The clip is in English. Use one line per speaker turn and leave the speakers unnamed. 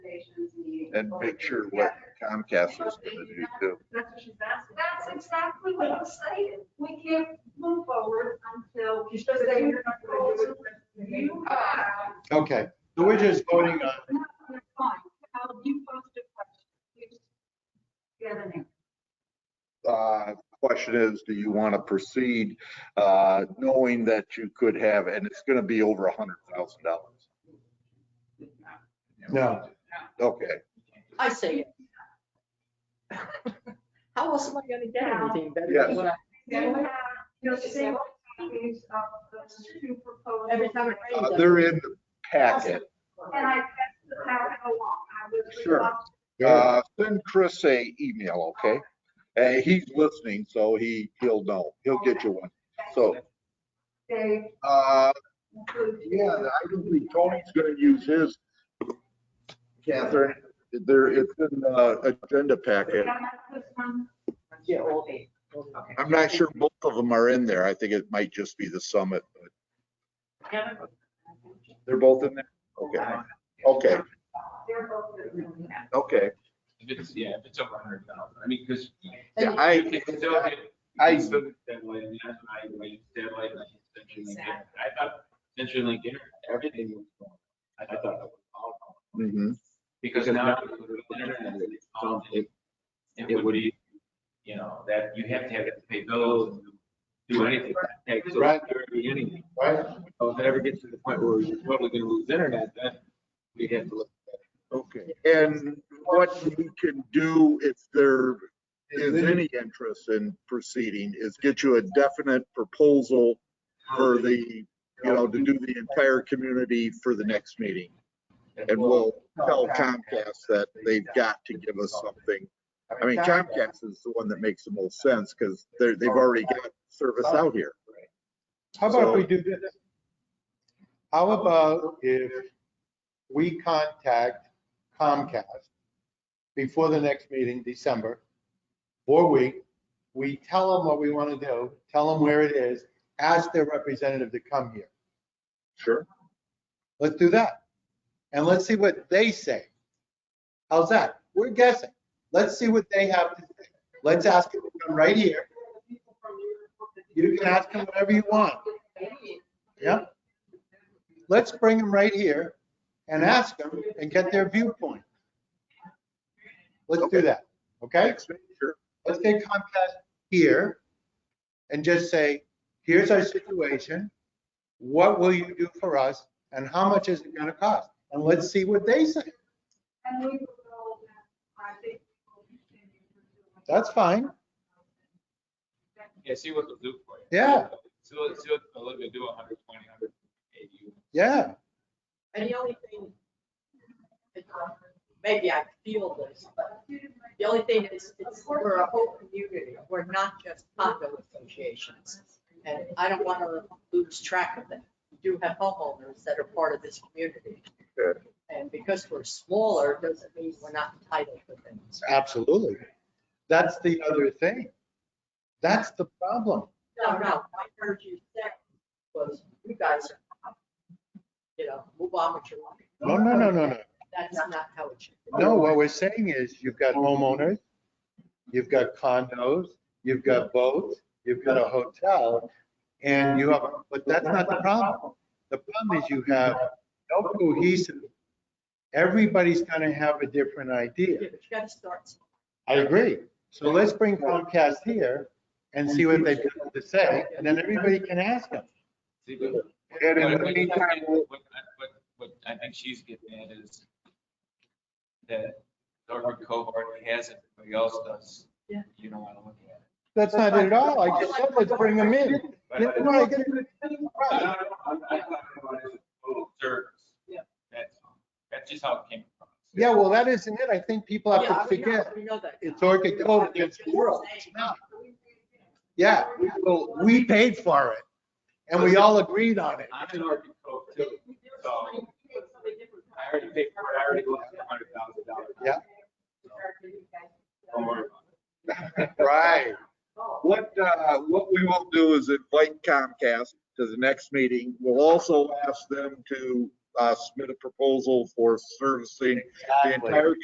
and make sure what Comcast is gonna do too.
That's what she's asking.
That's exactly what I'm saying. We can't move forward until
She said that you're not gonna do it.
you guys.
Okay, so we're just voting on,
No, that's fine. Cal, you posed a question. You just Get an answer.
Uh, Question is, do you wanna proceed, uh, knowing that you could have, and it's gonna be over a hundred thousand dollars? Uh,
no,
Okay,
I say it. How else am I gonna get anything better
Yes.
than what I?
You have
You know,
the
she
same
said,
copies of the two proposals.
Every time it rains.
Uh, they're in the packet.
And I passed the packet along. I was.
Sure.
good.
Uh, Send Chris a email, okay? Uh, He's listening, so he, he'll know. He'll get you one. So,
They
uh,
include.
yeah, I don't think Tony's gonna use his. Catherine, there, it's in the agenda packet.
Yeah, this one.
Yeah, old eight.
I'm not sure both of them are in there. I think it might just be the summit, but they're both in there? Okay, okay,
They're both good.
okay.
If it's, yeah, if it's over a hundred thousand, I mean, because.
Yeah,
It's still,
I, I-
I still get that way, and that's why I went that way, like, Century Link, Internet. I thought Century Link, Internet, everything was going. I thought that was all going.
mhm.
Mm. Because now, with the internet, it's all- it, it would be, you know, that you have to have it to pay bills and do anything. Like, so
Right.
there would be anything.
Right?
So if it ever gets to the point where we're totally gonna lose internet, then we have to look. at it.
Okay, and what we can do if there is any interest in proceeding is get you a definite proposal for the, you know, to do the entire community for the next meeting. And we'll tell Comcast that they've got to give us something. I mean, Comcast is the one that makes the most sense because they're, they've already got service out here.
How about if we do this? How about if we contact Comcast before the next meeting, December, or we, we tell them what we want to do, tell them where it is, ask their representative to come here.
Sure.
Let's do that. And let's see what they say. How's that? We're guessing. Let's see what they have to say. Let's ask them to come right here. You can ask them whatever you want. Yeah? Let's bring them right here and ask them and get their viewpoint. Let's do that, okay?
Next meeting, Sure.
Let's get Comcast here and just say, here's our situation. What will you do for us and how much is it gonna cost? And let's see what they say.
And we will, I think. we'll continue to do it.
That's fine.
Yeah, see what they'll do for you.
Yeah.
See what, see what they'll let you do, a hundred twenty, a hundred eighty.
Yeah,
And the only thing, maybe I feel this, but the only thing is, it's, we're a whole community. We're not just condo associations. And I don't want to lose track of that. We do have homeowners that are part of this community.
Sure.
And because we're smaller, doesn't mean we're not entitled to things.
absolutely. That's the other thing. That's the problem.
No, no, I heard you say was you guys are, you know, move on with your life.
No, no, no, no, no.
That's not how it should be.
No, what we're saying is you've got homeowners, you've got condos, you've got boats, you've got a hotel, and you have, but that's not the problem. The problem is you have no cohesive, everybody's gonna have a different idea.
You gotta start. somewhere.
I agree. So let's bring Comcast here and see what they've got to say, and then everybody can ask them.
See, but
And
What-
in the
what-
meantime, we'll-
What, what- what I think she's getting at is that Norfolk cohort has it, everybody else does.
Yeah.
You don't want to look at it.
That's not it at all. I just said, let's bring them in.
But-
No, I get it.
I
Right.
don't know, I'm- I'm talking about as a total service.
Yeah.
That's, that's just how it came across.
Yeah, well, that isn't it. I think people have
Yeah, I
to
know-
forget.
We know that.
It's Orchid Cove against the world. It's not. Yeah, we- well, we paid for it and we all agreed on it.
I'm an Norfolk cohort too, so I already paid for it, I already lost a hundred thousand dollars.
Yeah.
Don't worry about it.
Right.
What, uh, what we will do is invite Comcast to the next meeting. We'll also ask them to, uh, submit a proposal for servicing the entire